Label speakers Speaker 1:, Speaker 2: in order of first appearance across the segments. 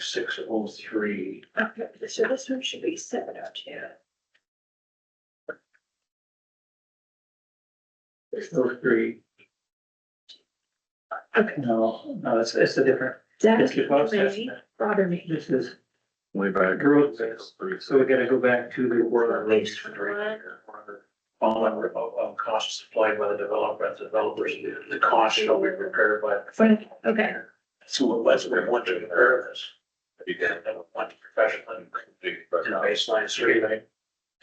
Speaker 1: six oh three.
Speaker 2: Okay, so this one should be seven oh two.
Speaker 1: Six oh three.
Speaker 2: Okay.
Speaker 1: No, no, it's, it's a different,
Speaker 2: That
Speaker 1: it's a process.
Speaker 2: bother me.
Speaker 1: This is,
Speaker 3: Way back.
Speaker 1: Growth is- so we gotta go back to the order.
Speaker 2: Page
Speaker 1: Following of, of costs supplied by the developer, the developers, the cost shall be prepared by.
Speaker 2: Fine, okay.
Speaker 1: So what was, we want to prepare this,
Speaker 3: You
Speaker 1: and then we want to professionally, in a baseline survey.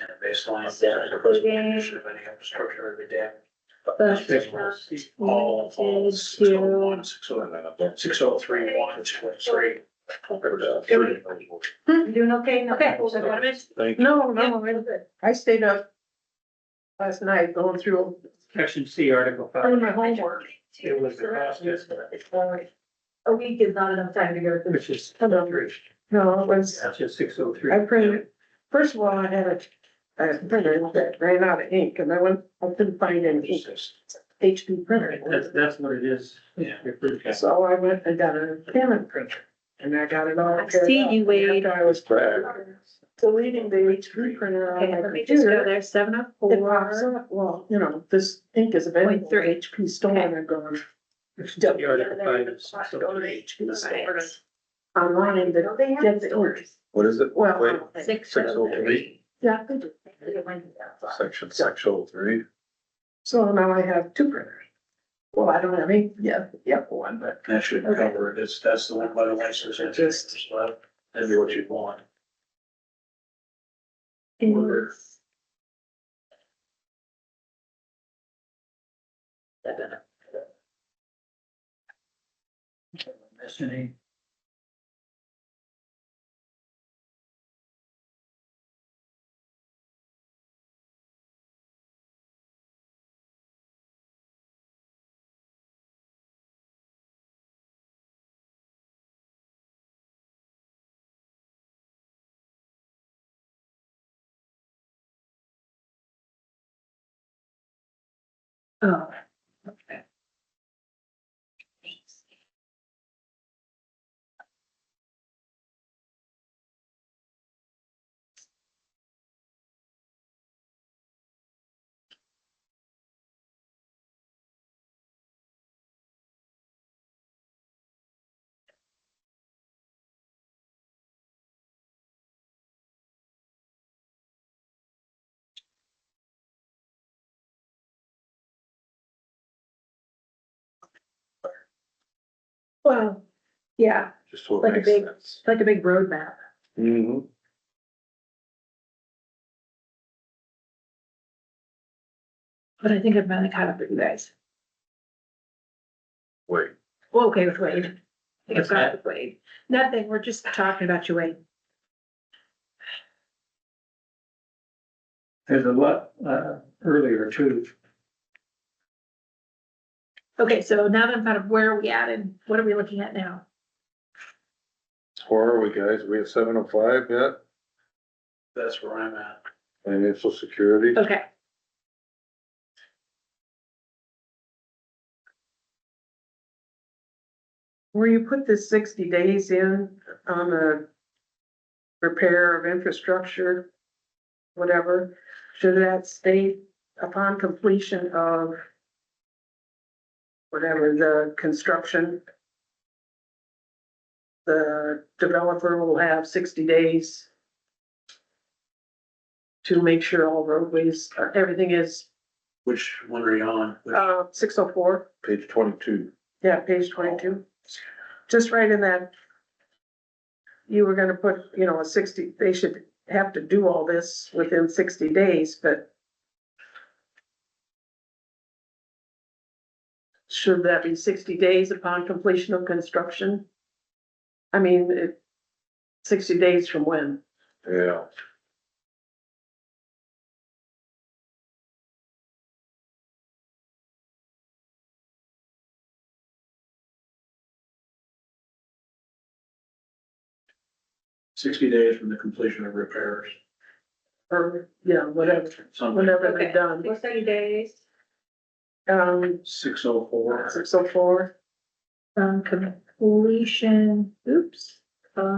Speaker 1: And a baseline.
Speaker 2: So including
Speaker 1: Of any infrastructure every day.
Speaker 2: the
Speaker 1: All falls, six oh one, six oh, six oh three, one, two, three.
Speaker 2: You doing okay? Okay.
Speaker 3: Thank you.
Speaker 2: Oh,
Speaker 4: No, no, really good. I stayed up last night going through,
Speaker 1: Section C, Article
Speaker 4: Oh,
Speaker 1: five,
Speaker 4: my homework.
Speaker 1: it was the fastest,
Speaker 4: It's all right. A week is not enough time to go through.
Speaker 1: which is.
Speaker 4: Hello. No, it was,
Speaker 1: That's just six oh three.
Speaker 4: I printed, first of all, I had a, a printer that ran out of ink and I went, I couldn't find an ink, HP
Speaker 1: That's,
Speaker 4: printer.
Speaker 1: that's what it is. Yeah.
Speaker 4: So I went and got a Canon printer and I got it all.
Speaker 2: I see you, Wade.
Speaker 4: After I was deleting the HP printer on
Speaker 2: Okay,
Speaker 4: my
Speaker 2: let me just go
Speaker 4: computer.
Speaker 2: there, seven oh
Speaker 4: It pops
Speaker 2: four
Speaker 4: up, well, you know, this ink is available.
Speaker 2: point three.
Speaker 4: HP store and I'm going
Speaker 1: The Article five is six
Speaker 4: Go to
Speaker 1: oh
Speaker 4: the
Speaker 1: three.
Speaker 4: HP store and online that, have stores.
Speaker 3: What is it?
Speaker 4: well, I
Speaker 3: Wait,
Speaker 4: don't think-
Speaker 2: Six oh three.
Speaker 4: yeah, they do.
Speaker 3: Section six oh three.
Speaker 4: So now I have two printers. Well, I don't have any, yeah, yeah, one, but
Speaker 1: That should cover it, it's, that's the one by the license.
Speaker 4: It just-
Speaker 1: That'd be what you'd want.
Speaker 2: is- Seven.
Speaker 1: Miss any?
Speaker 2: Oh, okay. Thanks. Well, yeah,
Speaker 3: Just what
Speaker 2: Like a
Speaker 3: makes
Speaker 2: big-
Speaker 3: sense.
Speaker 2: it's like a big roadmap.
Speaker 3: Mm-hmm.
Speaker 2: But I think I've finally caught up with you guys.
Speaker 3: Wait,
Speaker 2: Well, okay with Wade. I think I've got it with Wade. Nothing, we're just talking about you, Wade.
Speaker 1: There's a lot, uh, earlier too,
Speaker 2: Okay, so now that I'm kind of where are we at and what are we looking at now?
Speaker 3: where are we guys? We have seven oh five yet?
Speaker 1: that's where I'm at.
Speaker 3: Financial security?
Speaker 2: Okay,
Speaker 4: where you put the sixty days in on the repair of infrastructure, whatever, should that state upon completion of whatever the construction, the developer will have sixty days to make sure all roadways, uh, everything is,
Speaker 1: Which one are you on? Which-
Speaker 4: uh, six oh four.
Speaker 3: Page twenty-two.
Speaker 4: Yeah, page twenty-two. Just right in that. You were gonna put, you know, a sixty, they should have to do all this within sixty days, but. Should that be sixty days upon completion of construction? I mean, it, sixty days from when?
Speaker 3: Yeah.
Speaker 1: Sixty days from the completion of repairs.
Speaker 4: Or, yeah, whatever,
Speaker 1: Something,
Speaker 4: whenever they're
Speaker 2: Okay.
Speaker 4: done,
Speaker 2: sixty days.
Speaker 4: um,
Speaker 1: six oh four.
Speaker 4: six oh four.
Speaker 2: Um, completion, oops, um.